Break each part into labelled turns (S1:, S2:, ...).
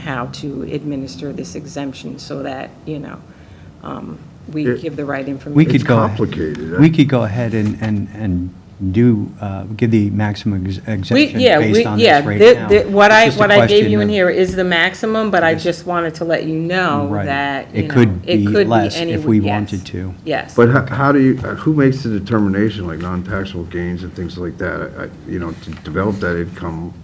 S1: how to administer this exemption so that, you know, um, we
S2: It-
S1: give the right information.
S3: We could
S2: It's
S3: go. ahe-
S2: complicated.
S3: We could go ahead and, and, and do, uh, give the maximum ex-
S1: We-
S3: exemption
S1: yeah, we-
S3: based on
S1: yeah.
S3: this right
S1: thi-
S3: now.
S1: thi- What
S3: It's
S1: I,
S3: just a
S1: what I gave
S3: question
S1: you in
S3: of-
S1: here is the maximum, but I just wanted to let you know
S3: Right.
S1: that, you
S3: It
S1: know,
S3: could be
S1: it could be
S3: less if
S1: any,
S3: we
S1: yes.
S3: wanted to.
S1: Yes.
S2: But how, how do you, uh, who makes the determination, like non-taxable gains and things like that? I- I- You know, to develop that income,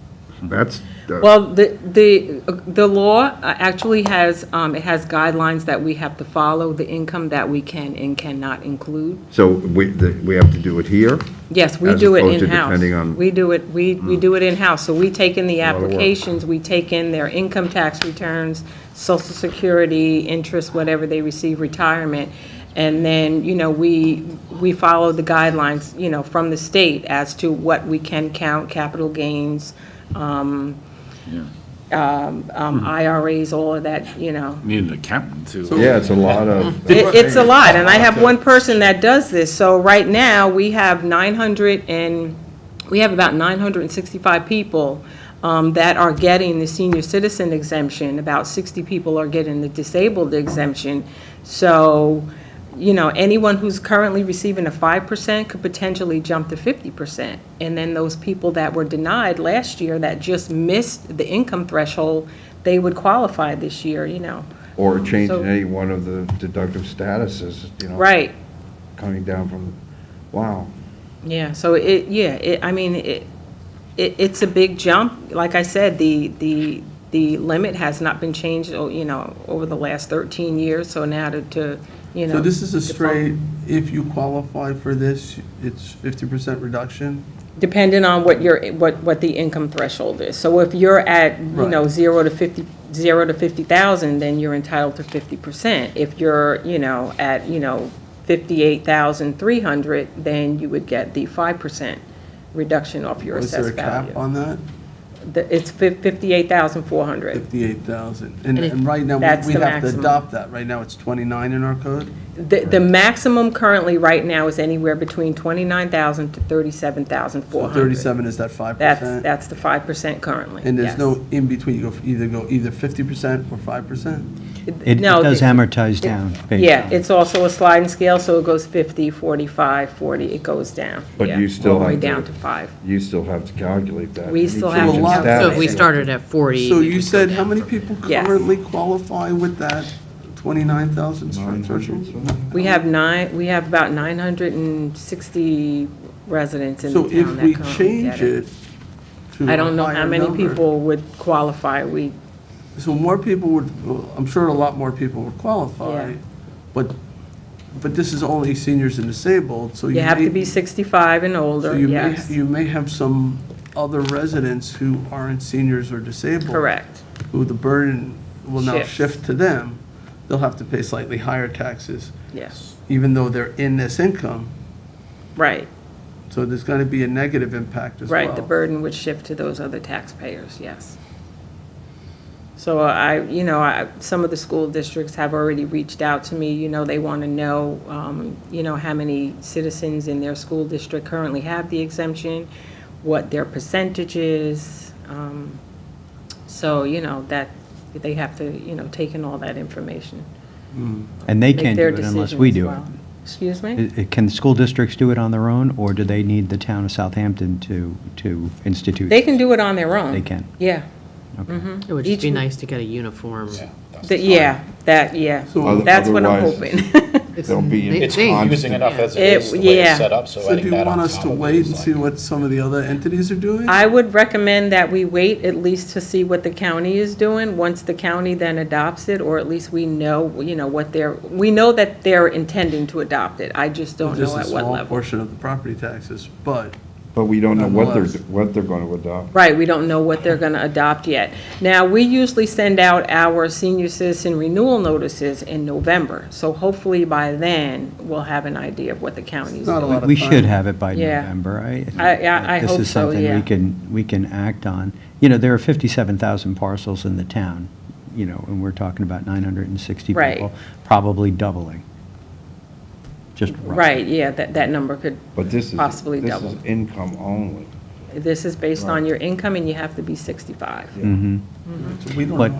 S2: that's, the-
S1: Well, the, the, the law uh, actually has, um, it has guidelines that we have to follow, the income that we can and cannot include.
S2: so we, the- we have to do it here?
S1: Yes, we
S2: As
S1: do it
S2: opposed to depending
S1: in-house.
S2: on- Mm.
S1: We do it, we, we do it in-house. So we take in the
S2: lot of work.
S1: applications, we take in their income tax returns, social security, interest, whatever they receive, retirement. And then, you know, we, we follow the guidelines, you know, from the state as to what we can count, capital gains, um, um, um, IRAs, all of that, you know.
S4: Need an accountant to.
S2: Yeah, it's a lot of.
S1: It- It's a lot, and I have one person that does this. So right now, we have 900 and, we have about 965 people um, that are getting the senior citizen exemption. About 60 people are getting the disabled exemption. So, you know, anyone who's currently receiving a 5% could potentially jump to 50%. And then those people that were denied last year that just missed the income threshold, they would qualify this year, you know.
S2: Or change
S1: Mm-hmm. So-
S2: in any one of the deductive statuses, you know?
S1: Right.
S2: Coming down from, wow.
S1: Yeah, so it, yeah, it, I mean, it, it, it's a big jump. Like I said, the, the, the limit has not been changed, oh, you know, over the last thirteen years, so now to, to, you know.
S5: So this is a
S1: depo-
S5: straight, if you qualify for this, it's fifty percent reduction?
S1: Depending on what your, what, what the income threshold is. So if you're at, you know,
S5: Right.
S1: zero to fifty, zero to fifty thousand, then you're entitled to fifty percent. If you're, you know, at, you know, fifty-eight thousand three hundred, then you would get the five percent reduction off your
S5: Is there a
S1: assessed value.
S5: cap on that?
S1: The- It's fif- 58,400.
S5: Fifty-eight thousand. And,
S1: And it-
S5: and right now,
S1: that's
S5: we- we
S1: the
S5: have to
S1: maximum.
S5: adopt that. Right now, it's twenty-nine in our code?
S1: The the maximum currently, right now, is anywhere between 29,000 to
S5: So
S1: 37,400.
S5: thirty-seven is that five
S1: That's,
S5: percent?
S1: that's the 5% currently.
S5: And there's
S1: yes.
S5: no in-between, you go, f- either go either fifty percent or five percent?
S3: It it
S1: No,
S3: does
S1: the-
S3: amortize down based
S1: Yeah,
S3: on-
S1: it's also a sliding scale, so it goes 50, 45, 40, it goes down.
S2: But
S1: yeah,
S2: you still
S1: All the way
S2: have to-
S1: down to 5.
S2: You still have to calculate that.
S1: We
S2: Any
S1: still
S2: change
S1: have
S2: in
S5: to calculate
S2: status.
S6: So if we
S1: Yeah.
S6: started at 40.
S5: So
S6: it
S5: you
S6: would go
S5: said
S6: down
S5: how many
S6: from-
S5: people
S1: Yes.
S5: currently qualify with that twenty-nine thousand threshold?
S1: We have nine, we have about 960 residents in the
S5: So
S1: town
S5: if
S1: that
S5: we
S1: currently
S5: change
S1: get it.
S5: it to
S1: I don't know
S5: a
S1: how
S5: higher
S1: many
S5: number-
S1: people would qualify. We
S5: So more people would, well, I'm sure a lot more people would qualify,
S1: Yeah.
S5: but, but this is only seniors and disabled, so you
S1: You have to
S5: may-
S1: be 65 and
S5: so
S1: older,
S5: you may-
S1: yes.
S5: You may have some other residents who aren't seniors or disabled.
S1: Correct.
S5: Who the burden will now
S1: Shifts.
S5: shift to them. They'll have to pay slightly higher taxes,
S1: Yes,
S5: even though they're in this income.
S1: right,
S5: So there's going to be a negative impact as well.
S1: right. The burden would shift to those other taxpayers, yes. So I, you know, I, some of the school districts have already reached out to me, you know, they want to know, um, you know, how many citizens in their school district currently have the exemption, what their percentage is. um, So, you know, that, they have to, you know, take in all that information.
S3: And they
S1: make
S3: can't do
S1: their
S3: it unless
S1: decision
S3: we
S1: as
S3: do it.
S1: well. Excuse me?
S3: I- I- Can school districts do it on their own, or do they need the town of Southampton to, to institute?
S1: They can do it on their own.
S3: They can.
S1: Yeah.
S6: It would just be
S1: Each-
S6: nice to get a uniform.
S1: The- Yeah, that, yeah.
S5: So-
S1: That's what I'm
S2: Otherwise-
S1: hoping.
S2: There'll be
S6: They-
S2: a
S6: they-
S2: constant-
S7: using enough as it
S1: It-
S7: is, the way
S1: yeah.
S7: it's set up, so
S5: So do
S7: adding
S5: you
S7: that on
S5: want us
S7: top
S5: to
S7: of it
S5: wait
S7: is
S5: and
S7: like-
S5: see what some of the other entities are doing?
S1: I would recommend that we wait at least to see what the county is doing. Once the county then adopts it, or at least we know, you know, what they're, we know that they're intending to adopt it. I just don't know at
S5: Just a
S1: what
S5: small
S1: level.
S5: portion of the property taxes, but
S2: But we don't know what they're,
S5: Nonetheless.
S2: what they're going to adopt.
S1: Right, we don't know what they're going to adopt yet. Now, we usually send out our senior citizen renewal notices in November. So hopefully by then, we'll have an idea of what the county's
S5: not a
S1: doing.
S5: lot of
S3: We
S5: time.
S3: should have it by
S1: Yeah.
S3: November, I. think
S1: I- I-
S3: that
S1: I hope
S3: This is
S1: so,
S3: something
S1: yeah.
S3: we can, we can act on. You know, there are 57,000 parcels in the town, you know, and we're talking about 960
S1: Right.
S3: people, probably doubling. Just roughly.
S1: Right, yeah, that, that number could
S2: But this is,
S1: possibly
S2: this
S1: double.
S2: is income only.
S1: This is based on your income, and you have to be 65.
S3: Mhm.
S5: So we don't
S3: But
S5: know.